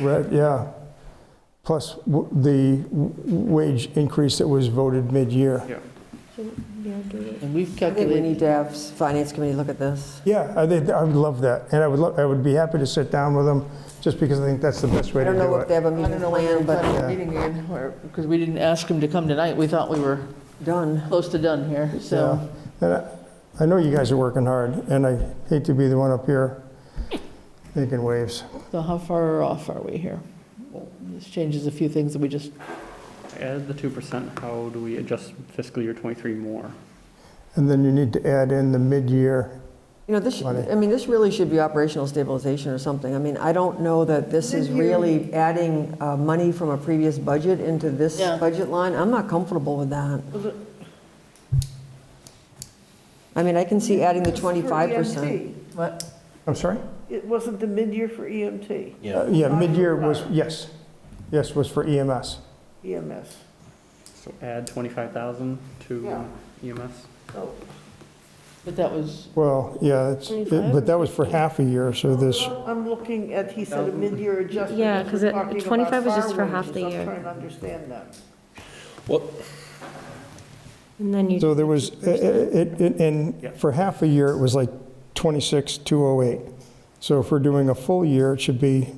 Right, yeah. Plus w- the w- wage increase that was voted mid-year. Yeah. And we've I think we calculated, need to have Finance Committee look at this. Yeah, I think, I would love that, and I would, lo- I would be happy to sit down with them, just because I think that's the best way I to don't know do if it. they have a I don't meeting know when we're planned, but planning the meeting again, or- because we didn't ask him to come tonight. We thought we were done. close to done here, so. Yeah. And I- I know you guys are working hard, and I hate to be the one up here making waves. So how far off are we here? Well, This changes a few things that we just, Add the 2%, how do we adjust fiscal year '23 more? And then you need to add in the mid-year. You know, this, should- Money. I mean, this really should be operational stabilization or something. I mean, I don't know that this is really adding uh, money from a previous budget into this Yeah. budget line. I'm not comfortable with that. I mean, I can see adding the It's for E 25%. EMT. what? I'm sorry? It wasn't the mid-year for E EMT, Uh, Yeah, mid-year was, yes, yes, was for E EMS. EMS. So add 25,000 to E Yeah. EMS? So But that was, Well, yeah, it's- it- but that was for half a year, so this, I'm looking at, he said a mid-year adjustment. Yeah, if 'cause we're it- talking about 25 was just for fire half the wages. year. I'm trying to understand that. And then you. so there was, i- i- it, it- Yeah. and for half a year, it was like 26,208. So if we're doing a full year, it should be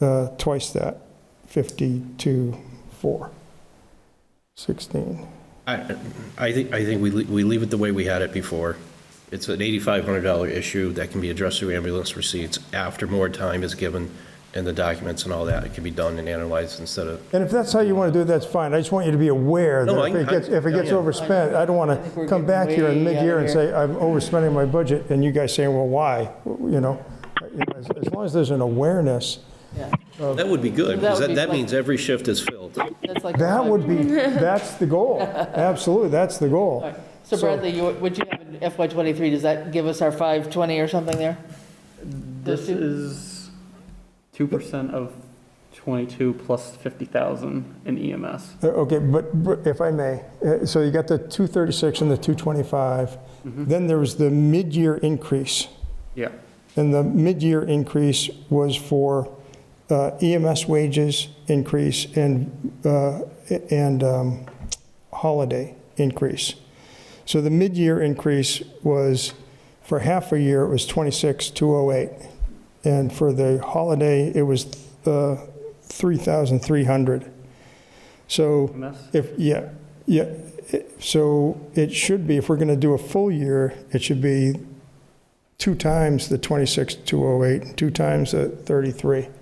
uh, twice that, 52,416. 16. I, I think, I think we, le- we leave it the way we had it before. It's an $8,500 issue that can be addressed through ambulance receipts after more time is given and the documents and all that. It can be done and analyzed instead of, And if that's how you want to do it, that's fine. I just want you to be aware No, that I- if it gets, if it I- gets yeah. overspent, I don't want think to we're come getting back here in way out of mid-year and here. say, I'm overspending my budget, and you guys saying, well, why? You know, You know, as as long as there's an awareness, yeah, that would be That good, because would be that, that flex- means every shift is filled. that's like. that would be, that's the goal. Absolutely, that's the All goal. right. So Bradley, you, what you have in FY '23, does that give us our 520 or something there? This two- is 2% of 22 plus 50,000 in E EMS. Uh, Okay, but but if I may, uh, so you got the 236 and the 225. Then there was the mid-year increase. Yeah, And the mid-year increase was for uh, EMS wages increase and, uh, and um, holiday increase. So the mid-year increase was, for half a year, it was 26,208. And for the holiday, it was uh, 3,300. So EMS? if, yeah, yeah, it- so it should be, if we're going to do a full year, it should be two times the 26,208, two times the 3,300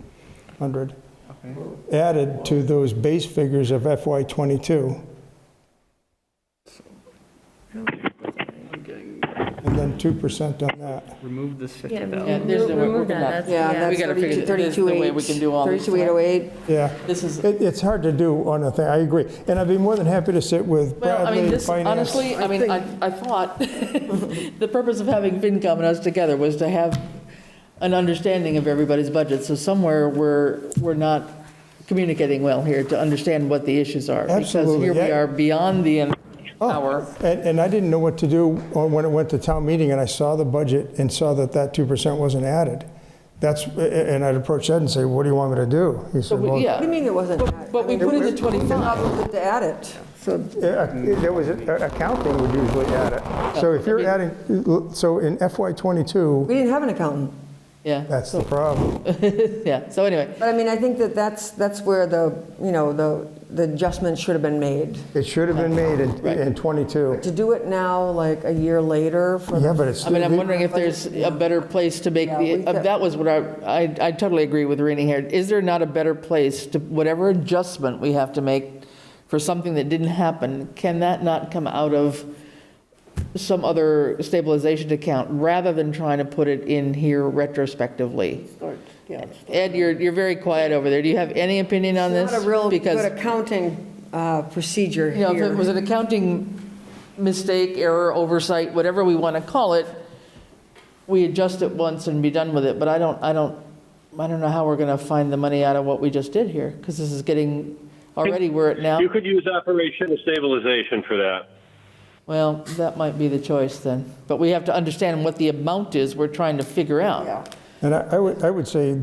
Okay. added to those base figures of FY '22, I'm getting, and then 2% on that. remove this Yeah, 50,000. Yeah, there's remove the way we're remove gonna- that, that's, Yeah, yeah. that's gotta figure that- there's no way we can do all these. 32,808. Yeah, This is, it, it's hard to do on a thing, I agree. And I'd be more than happy to sit with well, I mean, Bradley, this, Finance. honestly, I mean, I, I thought, the purpose of having FinCom and us together was to have an understanding of everybody's budget. So somewhere, we're, we're not communicating well here to understand what the issues are. Absolutely, Because here we yeah. are beyond the Oh, hour. And, and I didn't know what to do on- when it went to town meeting, and I saw the budget and saw that that 2% wasn't added. That's, and I'd approach Ed and say, what do you want me to do? He said, well, What do Yeah, you mean it wasn't? But- added? but I we mean, put in the we're- we're 25. obligated to add it. Yeah, uh, There was, accounting would usually add it. So if you're adding, so in FY '22, We didn't have an accountant. yeah, that's the problem. yeah. So anyway, But I mean, I think that that's, that's where the, you know, the, the adjustment should have been made. It should have been made in- in '22. To do it now, like a year later, for Yeah, but it's. I mean, I'm wondering if there's a better place to make Yeah, the, uh, we- that was what I, I, I totally agree with Rini here. Is there not a better place to, whatever adjustment we have to make for something that didn't happen, can that not come out of some other stabilization account rather than trying to put it in here retrospectively? Start, yeah. Ed, you're, you're very quiet over there. Do you have any opinion on this? It's not a real good Because accounting uh, procedure you know, if it was here. an accounting mistake, error, oversight, whatever we want to call it, we adjust it once and be done with it, but I don't, I don't, I don't know how we're going to find the money out of what we just did here, because this is getting, already we're at now, You could use operational stabilization for that. well, that might be the choice then. But we have to understand what the amount is we're trying to figure out. And I I would, I would say